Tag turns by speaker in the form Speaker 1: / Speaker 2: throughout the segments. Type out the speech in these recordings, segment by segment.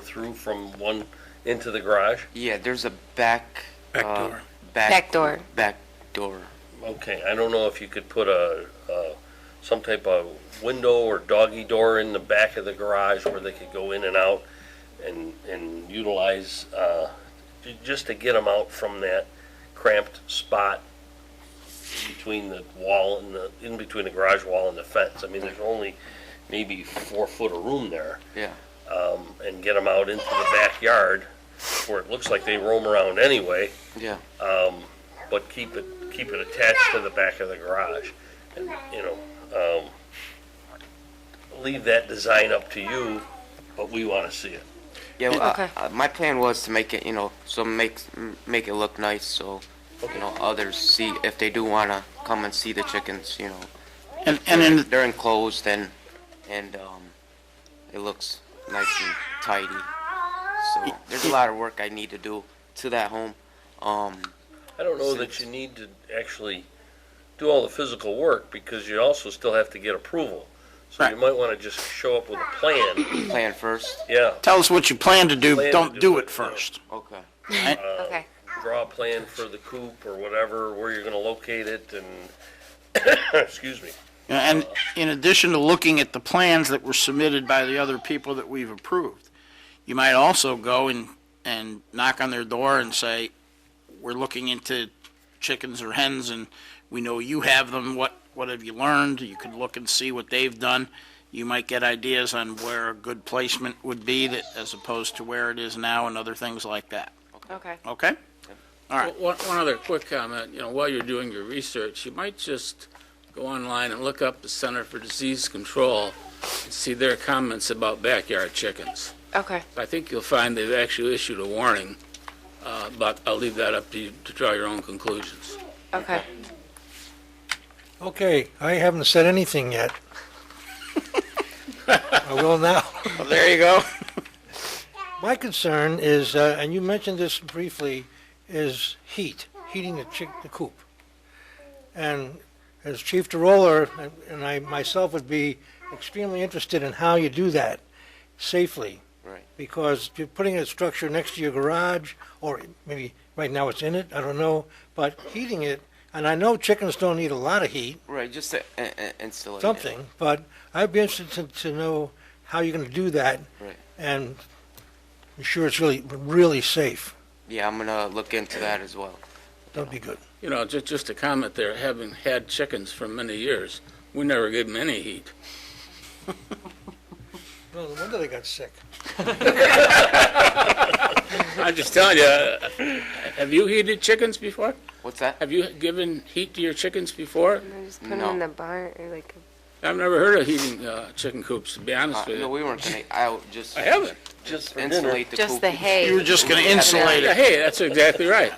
Speaker 1: through from one into the garage?
Speaker 2: Yeah, there's a back.
Speaker 3: Back
Speaker 2: uh,
Speaker 3: door.
Speaker 2: Back.
Speaker 4: Back door.
Speaker 2: Back door.
Speaker 1: Okay, I don't know if you could put a, uh, some type of window or doggy door in the back of the garage where they could go in and out and, and utilize, uh, ju- just to get them out from that cramped spot between the wall and the, in between the garage wall and the fence. I mean, there's only maybe four foot of room there.
Speaker 2: Yeah.
Speaker 1: Um, and get them out into the backyard where it looks like they roam around anyway
Speaker 2: Yeah.
Speaker 1: but keep it, keep it attached to the back of the garage. And, you know, um, leave that design up to you, but we wanna see it.
Speaker 2: Yeah. Well, uh,
Speaker 4: Okay.
Speaker 2: uh, my plan was to make it, you know, so make m- make it look nice, so you know others see if they do wanna come and see the chickens, you know,
Speaker 3: And, and in,
Speaker 2: they're enclosed and and um, it looks nice and tidy. So there's a lot of work I need to do to that home. Um,
Speaker 1: I don't know that you need to actually do all the physical work, because you also still have to get approval. So you
Speaker 3: Right.
Speaker 1: might wanna just show up with a plan,
Speaker 2: plan first.
Speaker 1: yeah,
Speaker 3: tell us what you plan to do,
Speaker 1: Plan to
Speaker 3: don't
Speaker 1: do
Speaker 3: do
Speaker 1: it.
Speaker 3: it first.
Speaker 2: Okay.
Speaker 4: Okay,
Speaker 1: draw a plan for the coop or whatever, where you're gonna locate it and, excuse me.
Speaker 3: You know, And in addition to looking at the plans that were submitted by the other people that we've approved, you might also go and, and knock on their door and say, we're looking into chickens or hens and we know you have them, what, what have you learned? You can look and see what they've done. You might get ideas on where a good placement would be that, as opposed to where it is now and other things like that,
Speaker 4: okay.
Speaker 3: okay? Right.
Speaker 5: One, one other quick comment, you know, while you're doing your research, you might just go online and look up the Center for Disease Control and see their comments about backyard chickens.
Speaker 4: Okay,
Speaker 5: I think you'll find they've actually issued a warning, uh, but I'll leave that up to you to draw your own conclusions.
Speaker 4: okay.
Speaker 6: Okay, I haven't said anything yet. I will now.
Speaker 3: Well, there you go.
Speaker 6: My concern is, uh, and you mentioned this briefly, is heat, heating the chick, the coop. And as Chief DeRoller, and- and I myself would be extremely interested in how you do that safely.
Speaker 2: Right.
Speaker 6: Because you're putting a structure next to your garage, or maybe right now it's in it, I don't know, but heating it, and I know chickens don't need a lot of heat,
Speaker 2: Right. Just to uh, uh, install it.
Speaker 6: something, but I'd be interested to, to know how you're gonna do that
Speaker 2: Right.
Speaker 6: and ensure it's really, really safe.
Speaker 2: Yeah, I'm gonna look into that as well.
Speaker 6: That'd be good.
Speaker 5: You know, ju- just a comment there, having had chickens for many years, we never gave them any heat.
Speaker 6: No wonder they got sick.
Speaker 5: I'm just telling you, uh, have you heated chickens before?
Speaker 2: What's that?
Speaker 5: Have you given heat to your chickens before?
Speaker 4: Just put 'em in the barn or like
Speaker 5: I've never heard of heating uh, chicken coops, to be
Speaker 2: Uh,
Speaker 5: honest with
Speaker 2: no,
Speaker 5: you.
Speaker 2: we weren't gonna. I'll just
Speaker 5: I haven't.
Speaker 1: Just for dinner.
Speaker 2: insulate the
Speaker 4: just
Speaker 2: coop.
Speaker 4: the hay.
Speaker 3: You were just gonna insulate it.
Speaker 5: Yeah, hey, that's exactly right.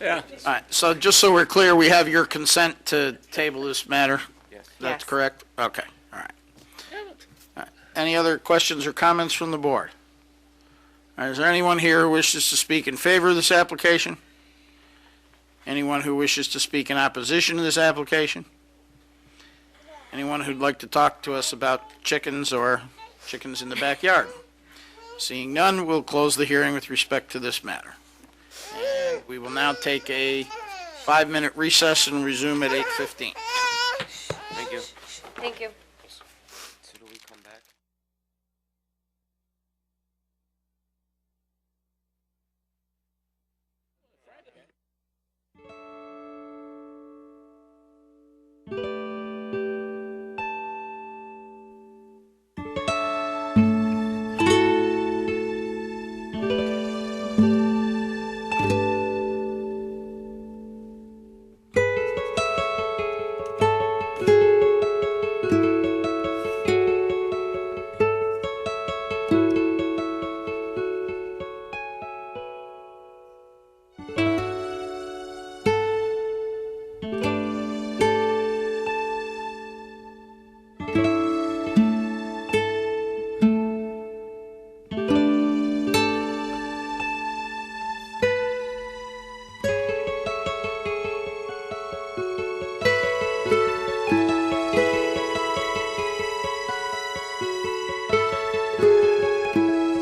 Speaker 5: Yeah.
Speaker 3: All right, so just so we're clear, we have your consent to table this matter?
Speaker 2: Yes.
Speaker 3: That's
Speaker 4: Yes.
Speaker 3: correct? Okay, all right. All right. Any other questions or comments from the board? All right, Is there anyone here who wishes to speak in favor of this application? Anyone who wishes to speak in opposition to this application? Anyone who'd like to talk to us about chickens or chickens in the backyard? Seeing none, we'll close the hearing with respect to this matter. And we will now take a five-minute recess and resume at 8:15.
Speaker 2: Thank you.
Speaker 4: Thank you.